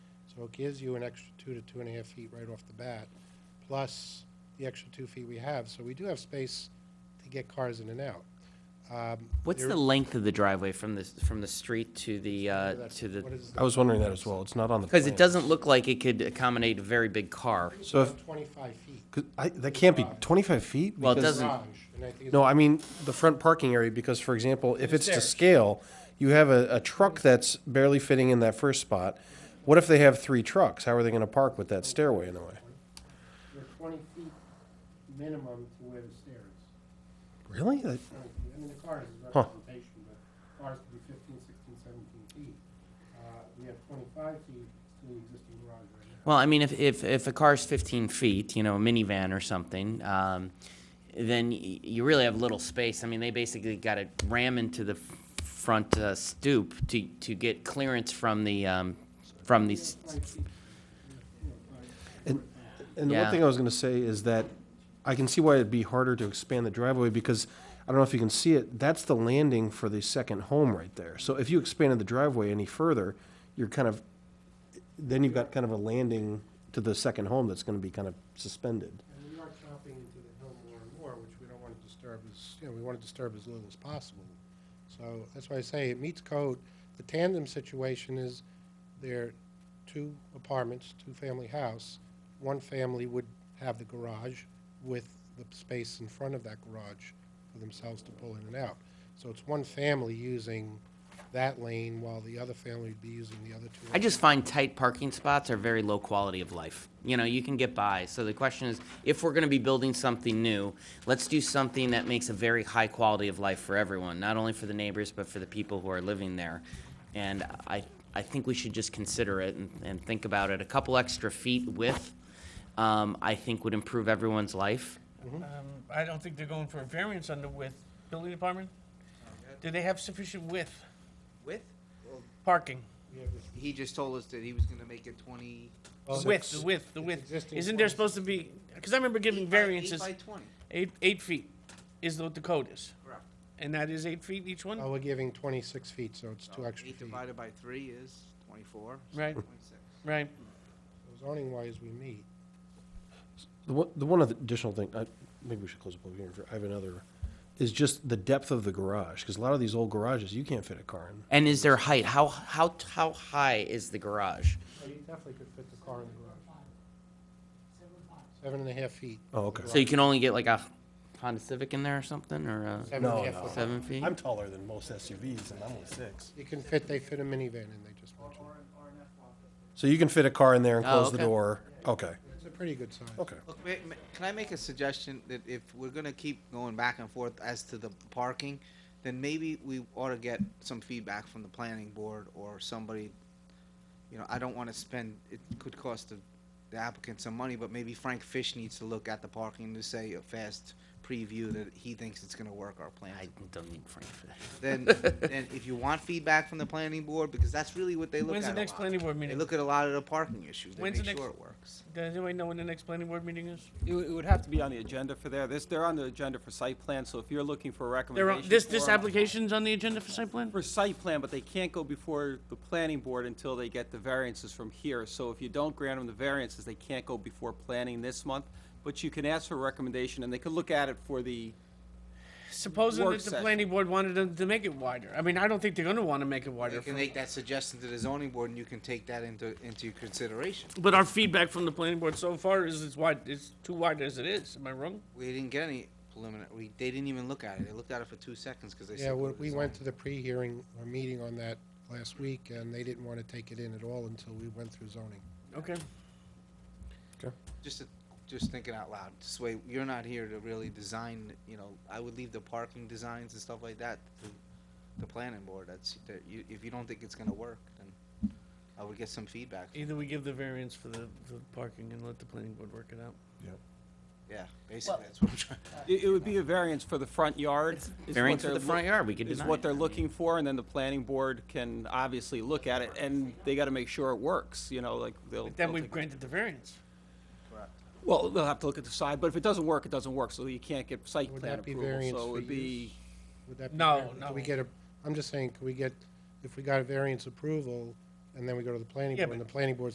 So it gives you an extra two to two and a half feet right off the bat, plus the extra two feet we have, so we do have space to get cars in and out. Um, What's there- the length of the driveway from the, from the street to the, uh, that's- to what the, is I was wondering that as well. It's not on the. because it plan. doesn't look like it could accommodate a very big car. So if, Twenty-five feet 'cause I, that can't be twenty-five feet? Well, it because- doesn't- garage, and I think it's No, I mean, the front parking area, because for example, if it's to Upstairs. scale, you have a, a truck that's barely fitting in that first spot. What if they have three trucks? How are they gonna park with that stairway in the way? You're twenty feet minimum to where the stairs. Really? That- I mean, the cars is Huh. representation, but cars could be fifteen, sixteen, seventeen feet. Uh, We have twenty-five feet to the existing garage right now. Well, I mean, if, if, if a car's fifteen feet, you know, a minivan or something, um, then y- you really have little space. I mean, they basically got to ram into the f- front uh, stoop to, to get clearance from the, um, from the, s- And the one Yeah. thing I was gonna say is that I can see why it'd be harder to expand the driveway because I don't know if you can see it, that's the landing for the second home right there. So if you expanded the driveway any further, you're kind of, then you've got kind of a landing to the second home that's gonna be kind of suspended. And we are chopping into the hill more and more, which we don't want to disturb as, you know, we want to disturb as little as possible. So that's why I say it meets code. The tandem situation is there are two apartments, two-family house. One family would have the garage with the space in front of that garage for themselves to pull in and out. So it's one family using that lane while the other family would be using the other two. I just find tight parking spots are very low quality of life. You know, you can get by. So the question is, if we're going to be building something new, let's do something that makes a very high quality of life for everyone, not only for the neighbors, but for the people who are living there. And I, I think we should just consider it and, and think about it. A couple extra feet width, um, I think would improve everyone's life. Um, I don't think they're going for a variance on the width. Building department? Do they have sufficient width, Width? Well, parking? he just told us that he was gonna make it twenty. Well, Width, the width, the width. existing Isn't there ones. supposed to be, because I remember giving Eight by- eight variances, By twenty, eight, eight feet is what the code is. correct. And that is eight feet each Oh, one, we're giving 26 feet, so it's two So extra Oh, Eight feet. divided by three is twenty-four. so Right. 26. right? Zoning wise, we meet. The one, the one other additional thing, I, maybe we should close the public hearing for, I have another, is just the depth of the garage, because a lot of these old garages, you can't fit a car in. And is there height? How, how, how high is the garage? So you definitely could fit the car in the garage. Seven and a half feet. Oh, okay. So you can only get like a Honda Civic in there or something, or a Seven and No, a half foot. seven feet? I'm taller than most SUVs, and I'm only six. You can fit, they fit a minivan in, they just mentioned. So you can fit a car in there and Oh, close the okay. door? Okay, It's a pretty good size. okay. Look, ma- ma- can I make a suggestion that if we're gonna keep going back and forth as to the parking, then maybe we ought to get some feedback from the planning board or somebody. You know, I don't wanna spend, it could cost the the applicant some money, but maybe Frank Fish needs to look at the parking to say a fast preview that he thinks it's gonna work our plans. I don't need Frank for that. then, then if you want feedback from the planning board, because that's really what they look When's at. the a next lot. planning board They meeting? look at a lot of the parking issues. They When's the make next- sure it works. Does anyone know when the next planning board meeting is? It would- it would have to be on the agenda for there. This, they're on the agenda for site plan, so if you're looking for a They're on- recommendation. this, this for- application's on the agenda for site plan? For site plan, but they can't go before the planning board until they get the variances from here. So if you don't grant them the variances, they can't go before planning this month. But you can ask for a recommendation, and they could look at it for the, Supposing Work that the session. planning board wanted them to make it wider. I mean, I don't think they're gonna wanna make it wider. You can for- make that suggestion to the zoning board, and you can take that into into your consideration. But our feedback from the planning board so far is it's wide, it's too wide as it is. Am I wrong? We didn't get any preliminary. We, they didn't even look at it. They looked at it for two seconds because they. Yeah, said um, we go to we the went to zoning. the pre-hearing, or meeting on that last week, and they didn't want to take it in at all until we went through zoning. Okay. Just, to- just thinking out loud. This way, you're not here to really design. You know, I would leave the parking designs and stuff like that to the planning board. That's that you, if you don't think it's gonna work, then I would get some feedback. Either we give the variance for the, the parking and let the planning board work it out. Yeah, basically, that's what I'm trying. it it would be a variance for the front yard. is what Variance for they're the front loo- yard, we could Is deny what it. they're I mean, looking for, and then the planning board can obviously look at it, and they gotta make sure it works, you know, like they'll. But then they'll we've take- granted the variance. Well, they'll have to look at the side, but if it doesn't work, it doesn't work, so you can't get site Would plan that be approval, variance so it for would be, Would that be? No, fair? no. Could we get a, I'm just saying, could we get, if we got a variance approval, and then we go to the planning Yeah, board, and the but- planning board